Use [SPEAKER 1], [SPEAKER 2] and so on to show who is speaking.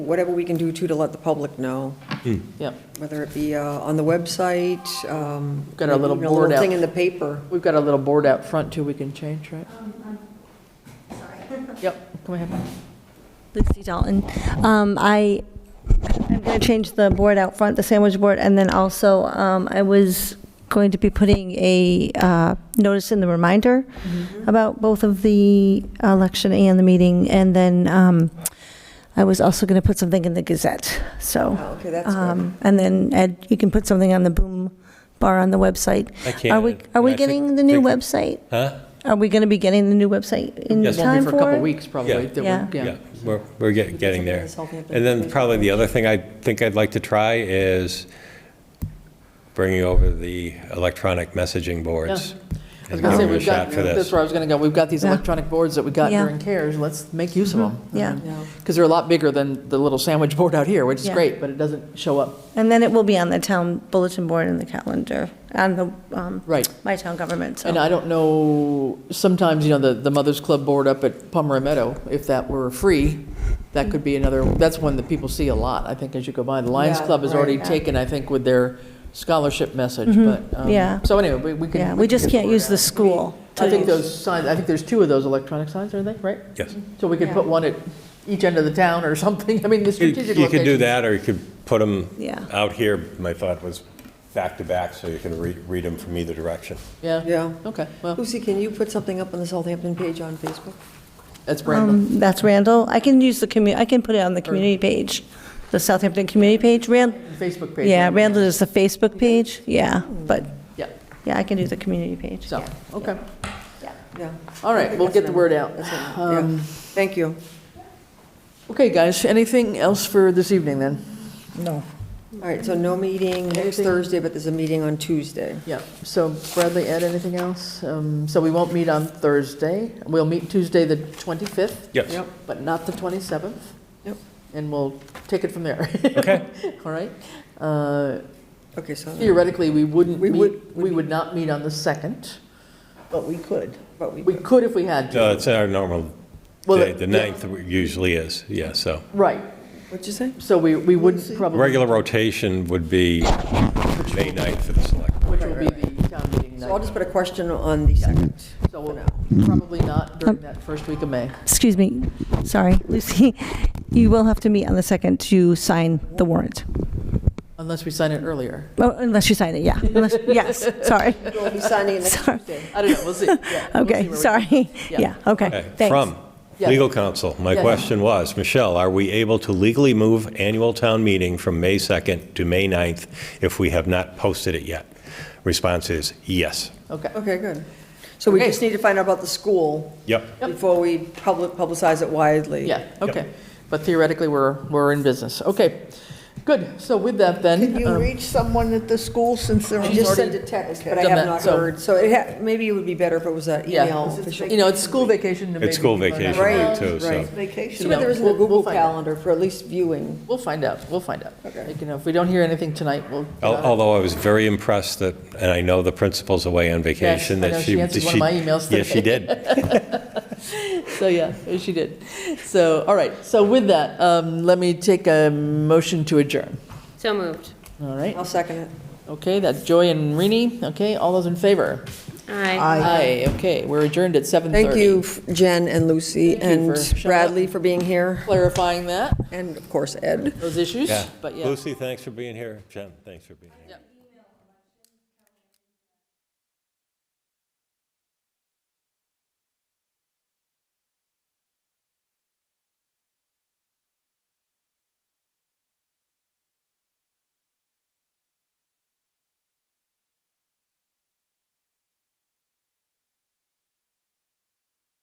[SPEAKER 1] whatever we can do too to let the public know,
[SPEAKER 2] Yep.
[SPEAKER 1] whether it be uh, on the website. um,
[SPEAKER 2] Got our little
[SPEAKER 1] maybe even
[SPEAKER 2] board out.
[SPEAKER 1] Thing in the paper.
[SPEAKER 2] We've got a little board out front too we can change, right?
[SPEAKER 3] Um,
[SPEAKER 2] Yep, come ahead.
[SPEAKER 3] Lucy Dalton. Um, I, I'm going to change the board out front, the sandwich board, and then also, um, I was going to be putting a, uh, notice in the reminder
[SPEAKER 1] Mm-hmm.
[SPEAKER 3] about both of the election and the meeting, and then, um, I was also going to put something in the Gazette, so.
[SPEAKER 1] Oh, okay, that's good.
[SPEAKER 3] um, And then, Ed, you can put something on the boom bar on the website.
[SPEAKER 4] I
[SPEAKER 3] Are we,
[SPEAKER 4] can,
[SPEAKER 3] are we
[SPEAKER 4] and I think-
[SPEAKER 3] getting the new
[SPEAKER 4] think-
[SPEAKER 3] website?
[SPEAKER 4] Huh?
[SPEAKER 3] Are we going to be getting the new website in
[SPEAKER 4] Yes.
[SPEAKER 2] Won't
[SPEAKER 3] time
[SPEAKER 2] be for a couple
[SPEAKER 3] it?
[SPEAKER 2] weeks probably.
[SPEAKER 4] Yeah.
[SPEAKER 2] that we're-
[SPEAKER 3] Yeah.
[SPEAKER 4] Yeah, we're, we're get- getting there. And then probably the other thing I think I'd like to try is bringing over the electronic messaging boards.
[SPEAKER 2] I was
[SPEAKER 4] and
[SPEAKER 2] gonna say,
[SPEAKER 4] giving it a
[SPEAKER 2] we've got,
[SPEAKER 4] shot for
[SPEAKER 2] that's where I was gonna go, we've got these
[SPEAKER 3] Yeah.
[SPEAKER 2] electronic boards that we got
[SPEAKER 3] Yeah. Mm-hmm.
[SPEAKER 2] during CARES, let's make use of them.
[SPEAKER 3] Yeah.
[SPEAKER 2] Because they're a lot bigger than the little sandwich board out here, which is
[SPEAKER 3] Yeah.
[SPEAKER 2] great, but it doesn't show up,
[SPEAKER 3] And then it will be on the town bulletin board and the calendar, on the, um,
[SPEAKER 2] right.
[SPEAKER 3] my town government,
[SPEAKER 2] And
[SPEAKER 3] so.
[SPEAKER 2] I don't know, sometimes, you know, the, the Mothers Club board up at Palmer Meadow, if that were free, that could be another, that's one that people see a lot, I think, as you go by. The Lions
[SPEAKER 1] Yeah,
[SPEAKER 2] Club has
[SPEAKER 1] right,
[SPEAKER 2] already
[SPEAKER 3] yeah. Mm-hmm.
[SPEAKER 2] taken, I think, with their scholarship message, but. um,
[SPEAKER 3] yeah.
[SPEAKER 2] So anyway, we we can.
[SPEAKER 3] Yeah, we just
[SPEAKER 2] can
[SPEAKER 3] can't
[SPEAKER 2] get
[SPEAKER 3] use
[SPEAKER 2] word
[SPEAKER 3] the school.
[SPEAKER 2] out. I think
[SPEAKER 3] to-
[SPEAKER 2] those signs, I think there's two of those electronic signs, are they, right?
[SPEAKER 4] Yes.
[SPEAKER 2] So we could put one at each end of the town or something, I mean, the
[SPEAKER 4] You
[SPEAKER 2] strategic
[SPEAKER 4] you could do
[SPEAKER 2] locations.
[SPEAKER 4] that, or you could put them
[SPEAKER 3] Yeah.
[SPEAKER 4] out here. My thought was back to back, so you can re- read them from either direction.
[SPEAKER 2] Yeah,
[SPEAKER 1] Yeah.
[SPEAKER 2] okay, well,
[SPEAKER 1] Lucy, can you put something up on the Southampton page on Facebook?
[SPEAKER 2] that's Brandon.
[SPEAKER 3] Um, that's Randall. I can use the commu, I can put it on the community page, the Southampton community page. Rand,
[SPEAKER 2] Facebook page.
[SPEAKER 3] yeah, Randall is the Facebook page, yeah, but,
[SPEAKER 2] Yeah,
[SPEAKER 3] yeah, I can do the community page.
[SPEAKER 2] so, okay,
[SPEAKER 1] Yeah.
[SPEAKER 2] all right, we'll get the word out.
[SPEAKER 1] That's it.
[SPEAKER 2] Um,
[SPEAKER 1] Yeah. Thank you.
[SPEAKER 2] Okay, guys, anything else for this evening then?
[SPEAKER 3] No.
[SPEAKER 1] All right, so no meeting next
[SPEAKER 2] Anything-
[SPEAKER 1] Thursday, but there's a meeting on Tuesday.
[SPEAKER 2] Yeah, so Bradley, Ed, anything else? Um, So we won't meet on Thursday. We'll meet Tuesday, the 25th,
[SPEAKER 4] Yes.
[SPEAKER 2] but not the 27th.
[SPEAKER 1] Yep.
[SPEAKER 2] And we'll take it from there.
[SPEAKER 4] Okay.
[SPEAKER 2] All right? Uh,
[SPEAKER 1] Okay, so,
[SPEAKER 2] Theoretically, we wouldn't
[SPEAKER 1] We
[SPEAKER 2] meet,
[SPEAKER 1] would-
[SPEAKER 2] we would not meet on the 2nd, but we could.
[SPEAKER 1] but we,
[SPEAKER 2] We could if we had
[SPEAKER 4] No,
[SPEAKER 2] to.
[SPEAKER 4] it's our normal
[SPEAKER 2] Well,
[SPEAKER 4] day. The
[SPEAKER 2] yeah.
[SPEAKER 4] ninth usually is, yeah, so.
[SPEAKER 2] Right,
[SPEAKER 1] what'd you say?
[SPEAKER 2] so we, we wouldn't probably,
[SPEAKER 4] Regular rotation would be May 9th for the select.
[SPEAKER 2] which will be the town meeting
[SPEAKER 1] So I'll
[SPEAKER 2] night.
[SPEAKER 1] just put a question on the second.
[SPEAKER 2] So probably not during that first week of May.
[SPEAKER 3] Excuse me, sorry, Lucy. You will have to meet on the second to sign the warrant,
[SPEAKER 2] Unless we sign it earlier.
[SPEAKER 3] Oh, unless you sign it, yeah, unless, yes, sorry.
[SPEAKER 1] We'll be signing it next
[SPEAKER 3] Sorry.
[SPEAKER 1] Tuesday.
[SPEAKER 2] I don't know, we'll see. Yeah, we'll see
[SPEAKER 3] Okay,
[SPEAKER 2] where we-
[SPEAKER 3] sorry,
[SPEAKER 2] Yeah.
[SPEAKER 3] yeah, okay,
[SPEAKER 4] Okay,
[SPEAKER 3] thanks.
[SPEAKER 4] From
[SPEAKER 2] Yeah.
[SPEAKER 4] legal counsel, my
[SPEAKER 2] Yeah.
[SPEAKER 4] question was, Michelle, are we able to legally move annual town meeting from May 2nd to May 9th if we have not posted it yet? Response is yes.
[SPEAKER 2] Okay,
[SPEAKER 1] Okay, good. So we
[SPEAKER 2] Okay.
[SPEAKER 1] just need to find out about the school
[SPEAKER 4] Yep.
[SPEAKER 1] before we public, publicize it widely.
[SPEAKER 2] yeah, okay. But theoretically, we're, we're in business. Okay, good. So with that
[SPEAKER 5] Can
[SPEAKER 2] then,
[SPEAKER 5] you
[SPEAKER 2] um,
[SPEAKER 5] reach someone at the school since they're
[SPEAKER 1] I
[SPEAKER 5] on
[SPEAKER 1] just
[SPEAKER 5] already?
[SPEAKER 1] sent a text,
[SPEAKER 5] Okay.
[SPEAKER 1] but I
[SPEAKER 2] Done
[SPEAKER 1] have
[SPEAKER 2] that,
[SPEAKER 1] not
[SPEAKER 2] so-
[SPEAKER 1] heard, so it ha, maybe it would be better if it was an email
[SPEAKER 2] yeah,
[SPEAKER 1] official.
[SPEAKER 2] you know, it's school vacation. and
[SPEAKER 4] It's
[SPEAKER 2] maybe
[SPEAKER 4] school
[SPEAKER 2] people are not-
[SPEAKER 4] vacation
[SPEAKER 1] Right,
[SPEAKER 4] week too, so.
[SPEAKER 1] right.
[SPEAKER 5] Vacation.
[SPEAKER 1] Too bad there isn't a
[SPEAKER 2] We'll- we'll
[SPEAKER 1] Google
[SPEAKER 2] find out.
[SPEAKER 1] Calendar for at least viewing.
[SPEAKER 2] We'll find out, we'll find out.
[SPEAKER 1] Okay.
[SPEAKER 2] You know, if we don't hear anything tonight, we'll. get
[SPEAKER 4] Al-
[SPEAKER 2] on it.
[SPEAKER 4] Although I was very impressed that, and I know the principal's away on vacation,
[SPEAKER 2] I
[SPEAKER 4] that
[SPEAKER 2] know,
[SPEAKER 4] she.
[SPEAKER 2] she answered one of my emails
[SPEAKER 4] Yes, she
[SPEAKER 2] today.
[SPEAKER 4] did.
[SPEAKER 2] So, yeah, she did. So, all right, so with that, um, let me take a motion to adjourn.
[SPEAKER 6] So moved.
[SPEAKER 2] All right,
[SPEAKER 1] I'll second it.
[SPEAKER 2] okay, that's Joy and Rini. Okay, all those in favor?
[SPEAKER 6] Aye.
[SPEAKER 2] Aye, okay, we're adjourned at 7:30.
[SPEAKER 1] Thank you, Jen and Lucy
[SPEAKER 2] Thank you
[SPEAKER 1] and
[SPEAKER 2] for showing
[SPEAKER 1] Bradley
[SPEAKER 2] up.
[SPEAKER 1] for being here,
[SPEAKER 2] Clarifying that,
[SPEAKER 1] and of course, Ed.
[SPEAKER 2] those issues,
[SPEAKER 4] Yeah.
[SPEAKER 2] but yeah.
[SPEAKER 4] Lucy, thanks for being here. Jen, thanks for being here.
[SPEAKER 2] Yep.